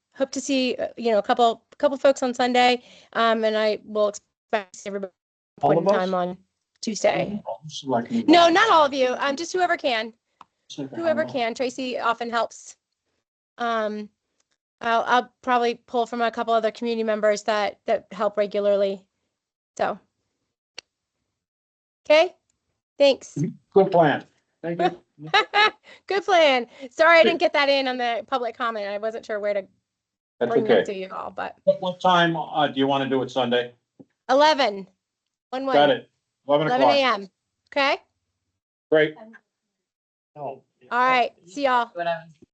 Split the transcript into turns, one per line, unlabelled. hope to see, uh, you know, a couple, couple folks on Sunday. Um, and I will expect to see everybody at
All
one
of us?
time on Tuesday.
All selectmen.
No, not all of you. Um, just whoever can,
Second,
whoever
I'm all-
can. Tracy often helps. Um, I'll, I'll probably pull from a couple other community members that, that help regularly. So. Okay, thanks.
Good plan. Thank you.
Good plan. Sorry, I didn't get that in on the public comment. I wasn't sure where to
That's
bring that
okay.
to you all, but
What, what time, uh, do you want to do it Sunday?
11. One
Got
one,
it. Eleven
11
o'clock.
a.m. Okay?
Great.
All right. See y'all.
What I was